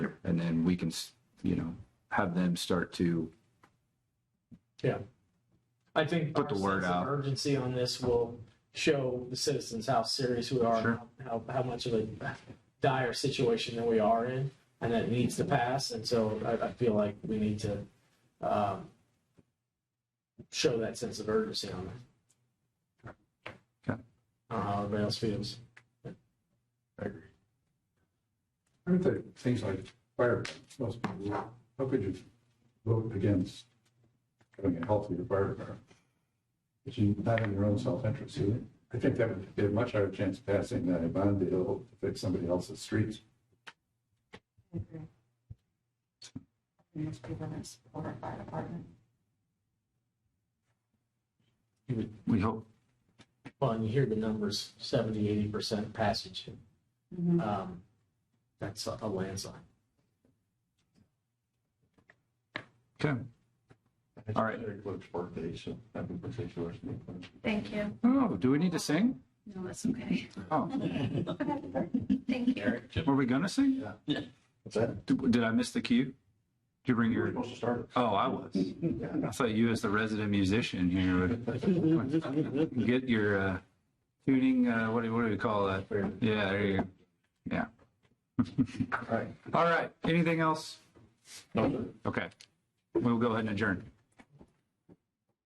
then we can, s- you know, have them start to, Yeah. I think Put the our word sense of out. Urgency on this will show the citizens how serious we are, Sure. and how, how much of a dire situation that we are in, and that needs to pass. And so I, I feel like we need to, um, show that sense of urgency on it. Okay. I don't know how everybody else feels. I agree. Aren't there things like fire, must be, how could you vote against having a healthier fire department? It's not in your own self-interest, is it? I think that would be a much higher chance of passing than a bond deal to fix somebody else's streets. I agree. Most people that support our fire department. we hope, Well, and you hear the numbers, 70, 80% passage. Mm-hmm. Um, that's a a landslide. okay. All right. Very close birthday, so that'd be particular. Thank you. Oh, do we need to sing? No, that's okay. Oh, Thank you. were we gonna sing? What's that? Did did I miss the cue? Did you bring You were your, supposed to start oh, I was. it. I thought you as the resident musician here would get your uh, tuning, uh, what do, what do we call that? Yeah, there you go. Yeah. All right. All right, anything else? No, Okay, we'll go ahead and adjourn.